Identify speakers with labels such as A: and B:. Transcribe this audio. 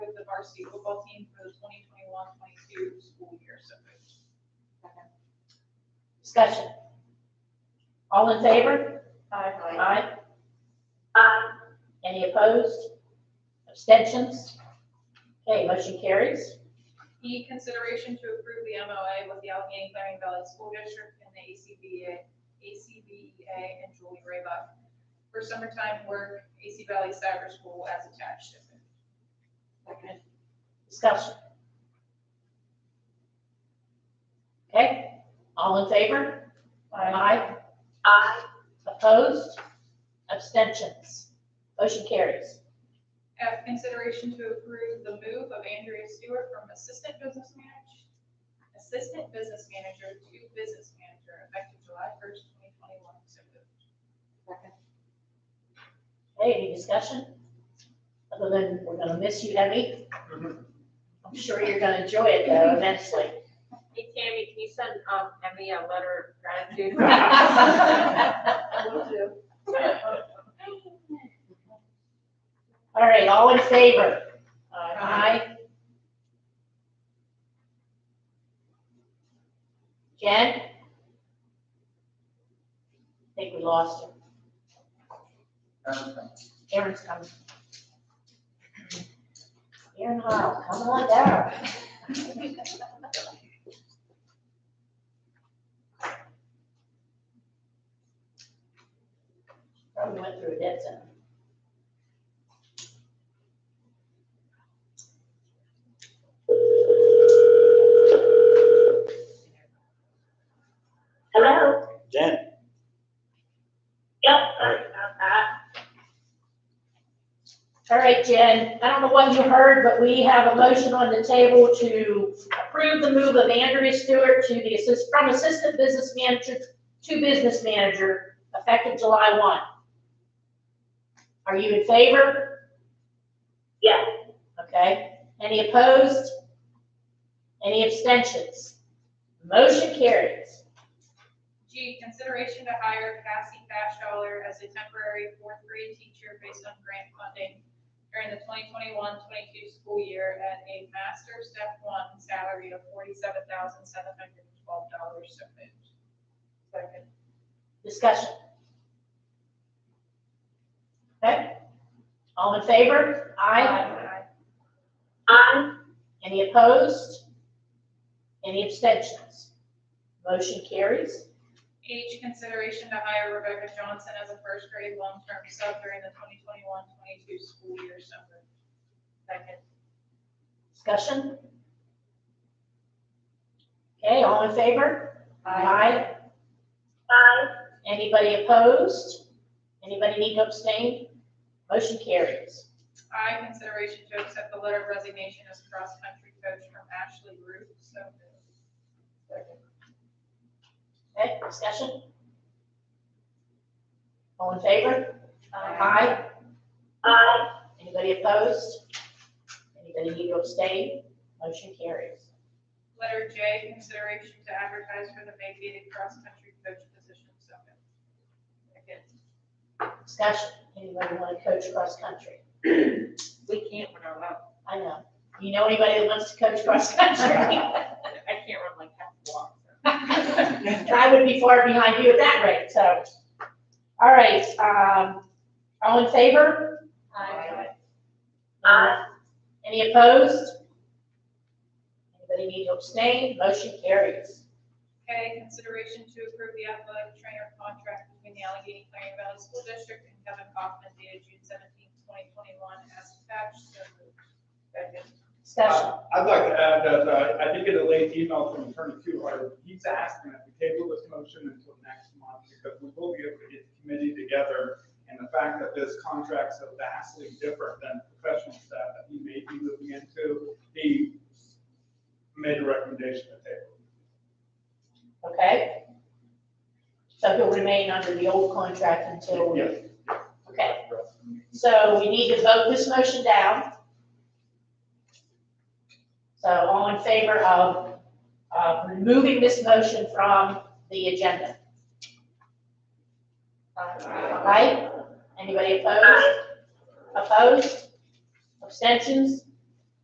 A: fourteen for the 2021-22 school year. So moved.
B: Discussion. All in favor?
C: Aye.
B: Aye.
D: Aye.
B: Any opposed? Abstentions? Okay, motion carries.
A: E, consideration to approve the MOA with the Allegheny Claring Valley School District and the ACBA, ACBEA E and Julie Raybuck for summertime work, AC Valley Cyber School as attached. So moved.
B: Discussion. Okay, all in favor? Aye.
D: Aye.
B: Opposed? Abstentions? Motion carries.
A: F, consideration to approve the move of Andrea Stewart from Assistant Business Manager, Assistant Business Manager to Business Manager effective July first, twenty twenty-one. So moved.
B: Okay, any discussion? Other than, we're gonna miss you heavy. I'm sure you're gonna enjoy it though immensely.
C: Hey Tammy, can you send, um, Emmy a letter of gratitude?
B: All right, all in favor?
A: Aye.
B: Jen? I think we lost her. Aaron's coming. Aaron Hall, come on down. Probably went through a dead zone.
D: Hello?
E: Jen,
D: Yep, sorry about that.
B: All right, Jen, I don't know what you heard, but we have a motion on the table to approve the move of Andrea Stewart to the assist, from assistant business manager to business manager effective July one. Are you in favor?
D: Yes.
B: Okay. Any opposed? Any abstentions? Motion carries.
A: G, consideration to hire Cassie Fashdollar as a temporary fourth grade teacher based on grant funding during the 2021-22 school year at a master step one salary of forty-seven thousand seven hundred and twelve dollars. So moved. Second.
B: Discussion. Okay. All in favor?
A: Aye.
D: Aye.
B: Any opposed? Any abstentions? Motion carries.
A: H, consideration to hire Rebecca Johnson as a first grade long-term sub during the 2021-22 school year. So moved. Second.
B: Discussion? Okay, all in favor? Aye.
D: Aye.
B: Anybody opposed? Anybody need to abstain? Motion carries.
A: I, consideration to accept the letter of resignation as cross-country coach from Ashley Root, so moved.
B: Okay, discussion? All in favor?
C: Um,
B: Aye.
D: Aye.
B: Anybody opposed? Anybody need to abstain? Motion carries.
A: Letter J, consideration to advertise for the vacated cross-country coach position, so moved. Second.
B: Discussion? Anybody want to coach cross-country?
C: We can't run our lap.
B: I know. You know anybody that wants to coach cross country?
C: I can't run like half a block.
B: I would be far behind you at that rate, so. All right, um, all in favor?
C: Aye.
D: Aye.
B: Any opposed? Anybody need to abstain? Motion carries.
A: K, consideration to approve the athletic trainer contract between the Allegheny Clarion Valley School District and Kevin Kaufman dated June seventeenth, twenty twenty-one, as attached, so moved. Second.
B: Discussion.
F: Uh, I'd like to add that uh, I did get a late email from Attorney Kuhar. He's asking that we table this motion until next month because we will be able to get the committee together. And the fact that this contract's so vastly different than professional staff that he may be moving into, he made a recommendation to table.
B: Okay? So he'll remain under the old contract until, we-
F: Yes.
B: okay. So we need to vote this motion down. So all in favor of, uh removing this motion from the agenda, right? Anybody opposed? Opposed? Abstentions?